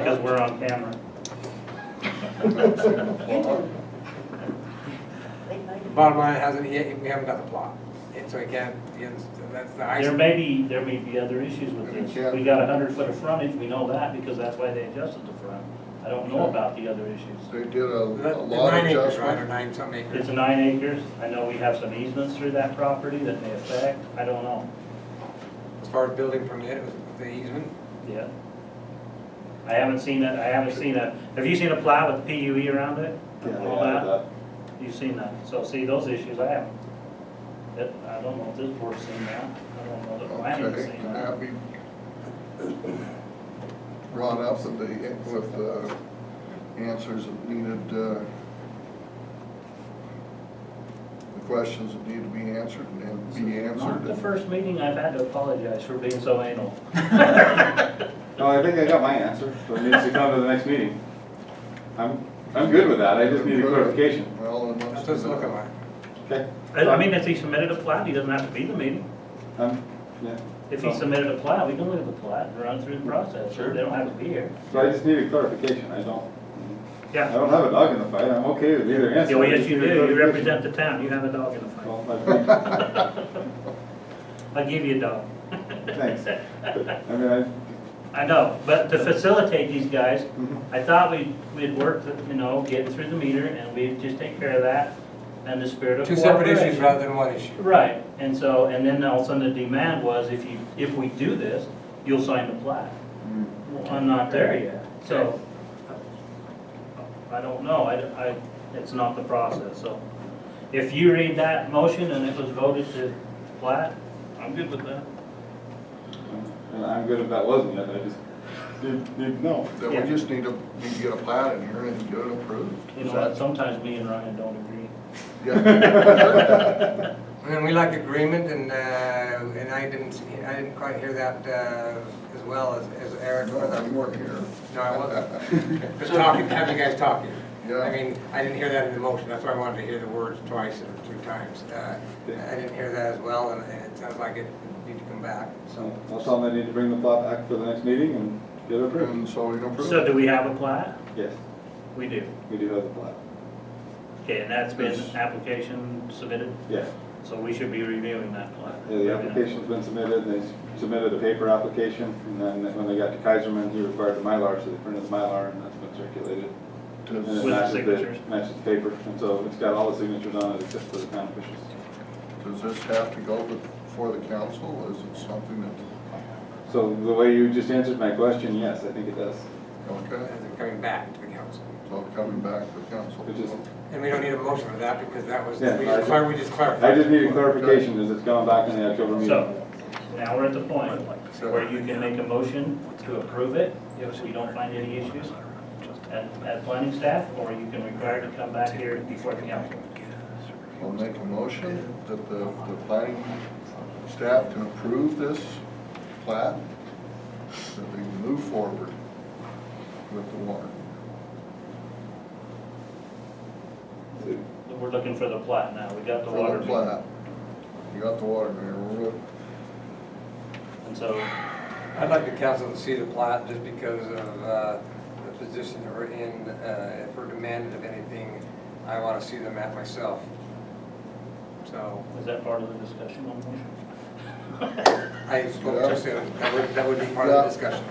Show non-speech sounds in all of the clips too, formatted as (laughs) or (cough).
because we're on camera. Bottom line, hasn't, he- we haven't got the plot, and so again, he has- that's the There ice. may be, there may be other issues with this. We got a hundred foot of frontage, we know that, because that's why they adjusted the front. I don't know about the other issues. They did a, The a the lot nine acres, right, or adjustment. nine something It's acres. nine acres, I know we have some easements through that property that may affect, I don't know, As far as building permit, it was the easement, yeah. I haven't seen that, I haven't seen a, have you seen a plat with PUE around it? All that? You've seen that, so see, those issues I haven't. It- I don't know if this board's seen that, I don't know that planning's Okay, seen can that. that be brought up with the, with the answers that needed, uh, the questions that need to be answered and then be Not the answered? first meeting I've had to apologize for being so (laughs) anal. No, I think I got my answer, so it needs to come to the next meeting. I'm, I'm good with that, I just need a clarification. Well, and let's that's what do it's looking like. that. Okay. I I mean, if he submitted a plat, he doesn't have to be the meeting. Um, yeah. If he submitted a plat, we can look at the plat and run through the process, Sure. they don't have to be here. So I just need a clarification, I don't, I Yeah, don't have a dog in the fight, I'm okay with either answer. well, I yes, just you need a do, you clarification. represent the town, you have a dog in the fight. Well, I I give you a dog. think- Thanks. But, I mean, (laughs) I, I know, but to facilitate these guys, mhm. I thought we, we'd worked, you know, getting through the meter, and we'd just take care of that, and the spirit of Two separate issues cooperation. rather than one issue. Right, and so, and then all of a sudden the demand was, if you, if we do this, you'll sign the plat. Mm. Well, I'm not there yet, so, I don't know, I, I, it's not the process, so. If you read that motion and it was voted to plat, I'm good with that. And I'm good if that wasn't it, I just need, need to know. Then Yeah. we just need to, need to get a plat in here and get it approved. You Is know, that- what, sometimes me and Ryan don't agree. Yeah. And then we like agreement, and, uh, and I didn't, see- I didn't quite hear that, uh, as well as, as Eric, or No, the- You weren't here. no, I wasn't. Just talking, have you guys talking. Yeah. I mean, I didn't hear that in the motion, that's why I wanted to hear the words twice or three times. Uh, I didn't hear that as well, and and it sounds like it needs to come back, So so. I'll tell them I need to bring the plot back for the next meeting and get it approved. And so we can approve. So do we have a plat? Yes, We do. we do have the plot, Okay, and that's been application submitted, yes. so we should be reviewing that plat. Yeah, the application's been submitted, they submitted a paper application, and then when they got to Kaiserman, he required the Mylar, so they printed the Mylar, and that's been circulated. Does- And it With the matches signatures. Matches the paper, and so it's got all the signatures on it except for the town Does officials. this have to go before the council? Is it something that, So the way you just answered my question, yes, I think it does. okay, It's coming back to the council. it's all coming back to the council? It just- And we don't need a motion for that, because that was, we Yeah, I just just- clar- we just I clarified. just need a clarification, is it's gone back in the October meeting? So, now we're at the point where you can make a motion to approve it, if you don't find any issues at, at planning staff, or you can require to come back here before the council. I'll make a motion that the, the planning staff can approve this plat, that we move forward with the warrant. We're looking for the plat now, we got the For water. the main. plat. You got the water main, (laughs) we're, And so, I'd like the council to see the plat, just because of uh, the position that we're in. Uh, If we're demanded of anything, I want to see the map myself. So is that part of the discussion on the motion? (laughs) I spoke too soon. That would, that would be part of the discussion.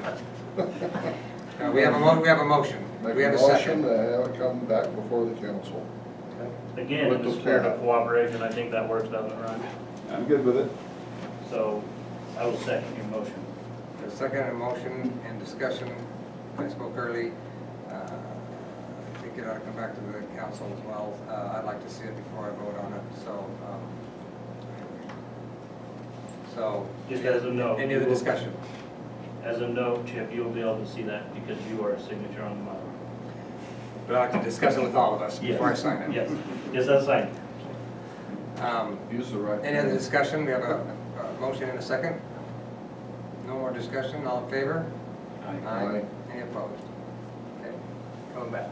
Uh, We have a, mo- we have a motion. make We have a a motion second. to have it come back before the council. Again, in With the the spirit of plat. cooperation, I think that works, doesn't it, Ryan? I'm good with it. So, I will second your motion. A second and motion and discussion. I spoke early. Uh, I think it ought to come back to the council as well. Uh, I'd like to see it before I vote on it, so. um, So. Just as a note, Any you other will- discussion? As a note, Chip, you'll be able to see that because you are a signature on the But I'd like to discuss it with all of us Yes. before I sign model. it. Yes, yes, that's right. Um, Use the right. Any other discussion? We have a, a motion and a second. No more discussion, all in favor? Aye. Any opposed? Okay, coming back.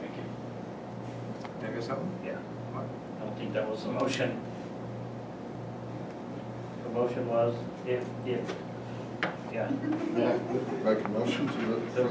Thank you. Did I miss something? Yeah, What? I don't think that was the motion. The motion was if, if, yeah. Make a motion to, the- for